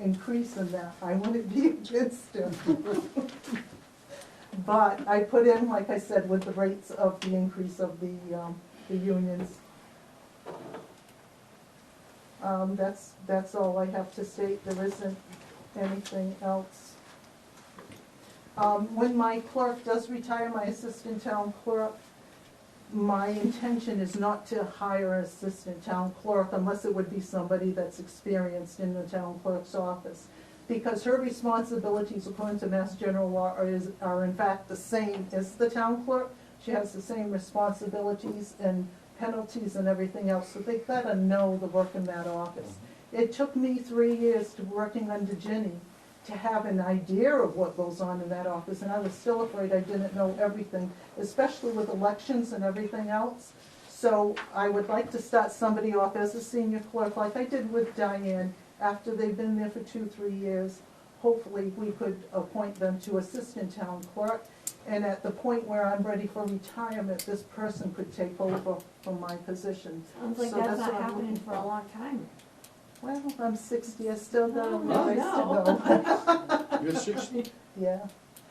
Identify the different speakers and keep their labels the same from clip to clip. Speaker 1: increase in that, I wouldn't be against it. But I put in, like I said, with the rates of the increase of the, um, the unions. Um, that's, that's all I have to state, there isn't anything else. Um, when my clerk does retire, my assistant town clerk, my intention is not to hire an assistant town clerk unless it would be somebody that's experienced in the town clerk's office. Because her responsibilities according to Mass General Law are, is, are in fact the same as the town clerk. She has the same responsibilities and penalties and everything else, so they gotta know the work in that office. It took me three years to working under Jenny to have an idea of what goes on in that office, and I was still afraid I didn't know everything, especially with elections and everything else. So I would like to start somebody off as a senior clerk, like I did with Diane, after they've been there for two, three years. Hopefully, we could appoint them to assistant town clerk, and at the point where I'm ready for retirement, this person could take over from my position.
Speaker 2: Sounds like
Speaker 1: So
Speaker 2: that's
Speaker 1: that's
Speaker 2: not
Speaker 1: what I'm
Speaker 2: happening
Speaker 1: looking
Speaker 2: for a
Speaker 1: for.
Speaker 2: long time.
Speaker 1: Well, I'm sixty, I still got a
Speaker 2: Oh,
Speaker 1: ways to
Speaker 2: no.
Speaker 1: go.
Speaker 3: You're sixty?
Speaker 1: Yeah,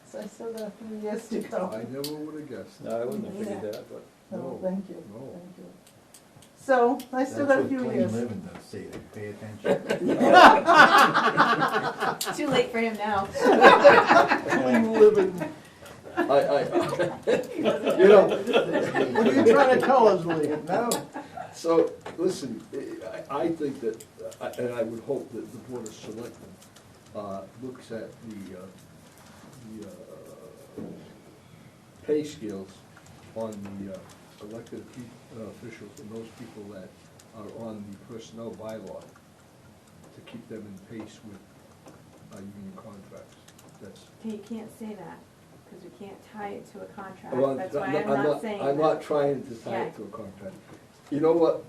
Speaker 1: so I still got three years to
Speaker 3: I
Speaker 1: go.
Speaker 3: never would have guessed.
Speaker 4: No, I wouldn't have
Speaker 2: Yeah.
Speaker 4: figured that, but
Speaker 1: No,
Speaker 3: No,
Speaker 1: thank you,
Speaker 3: no.
Speaker 1: thank you. So, I still got a few
Speaker 5: That's
Speaker 1: years.
Speaker 5: what clean living does, see, they pay attention.
Speaker 2: Too late for him now.
Speaker 3: Clean living. I, I, you know, what are you trying to tell us, Lee?
Speaker 5: No,
Speaker 3: So, listen, I- I, I think that, I- and I would hope that the Board of Selectmen, uh, looks at the, uh, the, uh, pay scales on the uh, elected pe- uh, officials and those people that are on the personnel bylaw to keep them in pace with, uh, union contracts. That's,
Speaker 2: You can't say that, because we can't tie it to a contract.
Speaker 3: well,
Speaker 2: That's why I'm not saying
Speaker 3: I'm
Speaker 2: that.
Speaker 3: not trying to tie
Speaker 2: Yeah.
Speaker 3: it to a contract. You know what?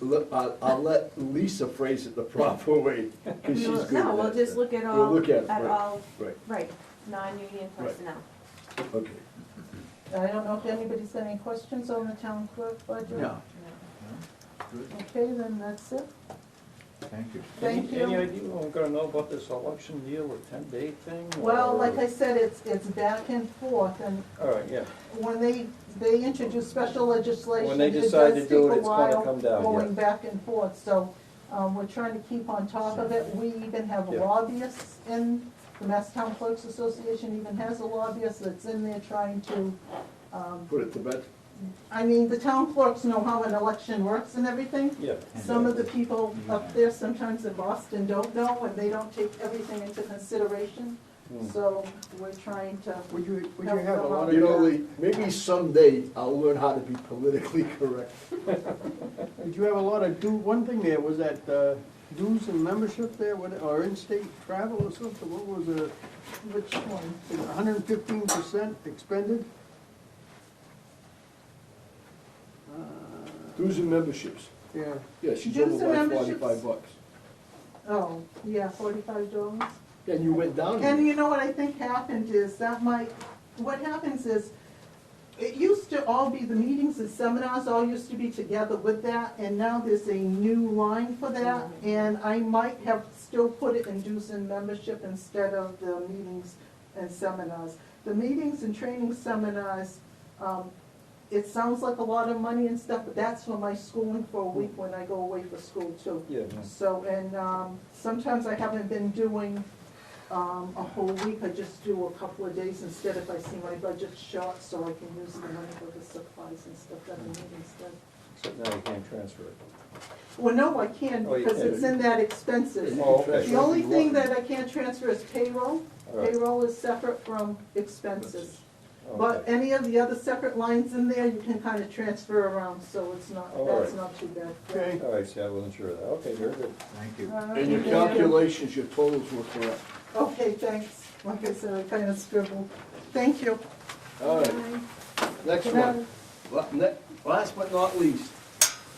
Speaker 3: Look, I'll, I'll let Lisa phrase it the proper way,
Speaker 2: We
Speaker 3: because she's
Speaker 2: will-
Speaker 3: good
Speaker 2: No,
Speaker 3: at
Speaker 2: we'll
Speaker 3: that.
Speaker 2: just look at
Speaker 3: We'll
Speaker 2: all,
Speaker 3: look at it,
Speaker 2: at
Speaker 3: right.
Speaker 2: all,
Speaker 3: Right,
Speaker 2: right, non-union
Speaker 3: Right.
Speaker 2: personnel.
Speaker 3: okay.
Speaker 1: I don't know if anybody's got any questions on the town clerk budget?
Speaker 4: No.
Speaker 3: good.
Speaker 1: Okay, then that's it.
Speaker 5: thank you.
Speaker 1: Thank
Speaker 4: Any
Speaker 1: you.
Speaker 4: idea what we're gonna know about this election deal or ten-day thing?
Speaker 1: Well,
Speaker 4: or-
Speaker 1: like I said, it's, it's back and forth, and
Speaker 4: All right, yeah,
Speaker 1: when they, they introduce special legislation,
Speaker 4: When they
Speaker 1: it does
Speaker 4: decide to
Speaker 1: take
Speaker 4: do it,
Speaker 1: a
Speaker 4: it's gonna
Speaker 1: while
Speaker 4: come down,
Speaker 1: Going
Speaker 4: yeah.
Speaker 1: back and forth, so, um, we're trying to keep on top of it. We even have
Speaker 4: Yeah.
Speaker 1: lobbyists in, the Mass Town Clerks Association even has a lobbyist that's in there trying to, um,
Speaker 3: Put it to bed.
Speaker 1: I mean, the town clerks know how an election works and everything.
Speaker 4: yeah.
Speaker 1: Some of the people up there sometimes in Boston don't know, and they don't take everything into consideration,
Speaker 4: Hmm.
Speaker 1: so we're trying to.
Speaker 3: Would you,
Speaker 1: would you have a lot of
Speaker 3: You know, Lee, maybe someday I'll learn how to be politically correct.
Speaker 6: Did you have a lot of do, one thing there, was that uh, dues and membership there, what- or in-state travel or something, what was it,
Speaker 1: Which one?
Speaker 6: hundred and fifteen percent expended? Uh,
Speaker 3: Dues and memberships.
Speaker 6: Yeah,
Speaker 3: Yeah, she's
Speaker 1: Dues
Speaker 3: over
Speaker 1: and
Speaker 3: by
Speaker 1: memberships.
Speaker 3: forty-five bucks.
Speaker 1: Oh, yeah, forty-five dollars.
Speaker 3: And you went down.
Speaker 1: And you know what I think happened is that might, what happens is, it used to all be, the meetings and seminars all used to be together with that, and now there's a new line for that, and I might have still put it in dues and membership instead of the meetings and seminars. The meetings and training seminars, um, it sounds like a lot of money and stuff, but that's for my schooling for a week when I go away for school too.
Speaker 4: Yeah,
Speaker 1: So, and um, sometimes I haven't been doing um, a whole week, I just do a couple of days instead if I see my budget short, so I can use the money for the supplies and stuff that I need instead.
Speaker 4: so now you can't transfer it.
Speaker 1: Well, no, I can,
Speaker 4: Oh, you
Speaker 1: because
Speaker 4: can.
Speaker 1: it's in that expenses.
Speaker 4: Oh, okay.
Speaker 1: The only thing that I can't transfer is payroll.
Speaker 4: All right,
Speaker 1: Payroll is separate from expenses. But
Speaker 4: okay.
Speaker 1: any of the other separate lines in there, you can kind of transfer around, so it's not,
Speaker 4: All
Speaker 1: that's
Speaker 4: right.
Speaker 1: not too bad. Uh,
Speaker 6: okay.
Speaker 4: All right, see, I wasn't sure of that, okay, very good.
Speaker 5: Thank you.
Speaker 1: All right,
Speaker 3: And your
Speaker 1: thank you.
Speaker 3: calculations, your totals were correct.
Speaker 1: Okay, thanks. Like I said, I kind of scribbled. Thank you.
Speaker 3: All right, next one. La- ne- Last but not least,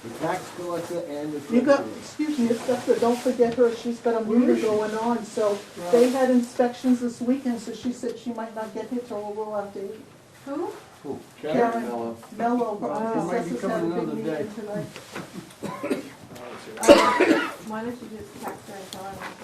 Speaker 3: the tax collector and the
Speaker 1: You got,
Speaker 3: treasurer.
Speaker 1: excuse me, Esther, don't forget her, she's got a
Speaker 3: Where
Speaker 1: murder
Speaker 3: is she?
Speaker 1: going on, so they had inspections this weekend, so she said she might not get here till a little after eight.
Speaker 2: Who?
Speaker 1: Karen.
Speaker 6: Mello.
Speaker 1: Mello, her
Speaker 6: Well, she
Speaker 1: office
Speaker 6: might be
Speaker 1: uh, assessors had a
Speaker 6: coming
Speaker 1: big
Speaker 6: another day.
Speaker 1: meeting tonight.
Speaker 2: Why don't you just text her and tell her?